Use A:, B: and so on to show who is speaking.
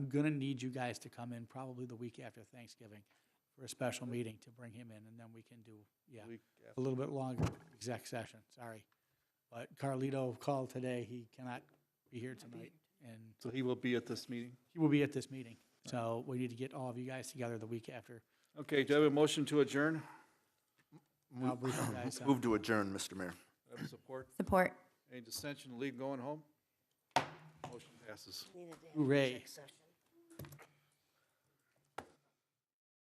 A: gonna need you guys to come in probably the week after Thanksgiving for a special meeting to bring him in, and then we can do, yeah,
B: Week
A: a little bit longer exec session, sorry. But Carlito called today, he cannot be here tonight, and
B: So he will be at this meeting?
A: he will be at this meeting. So we need to get all of you guys together the week after.
B: Okay, do I have a motion to adjourn?
A: I'll brief you guys on-
C: Move to adjourn, Mr. Mayor.
B: Do I have support?
D: Support.
B: Any dissension, leave going home? Motion passes.
A: Hooray.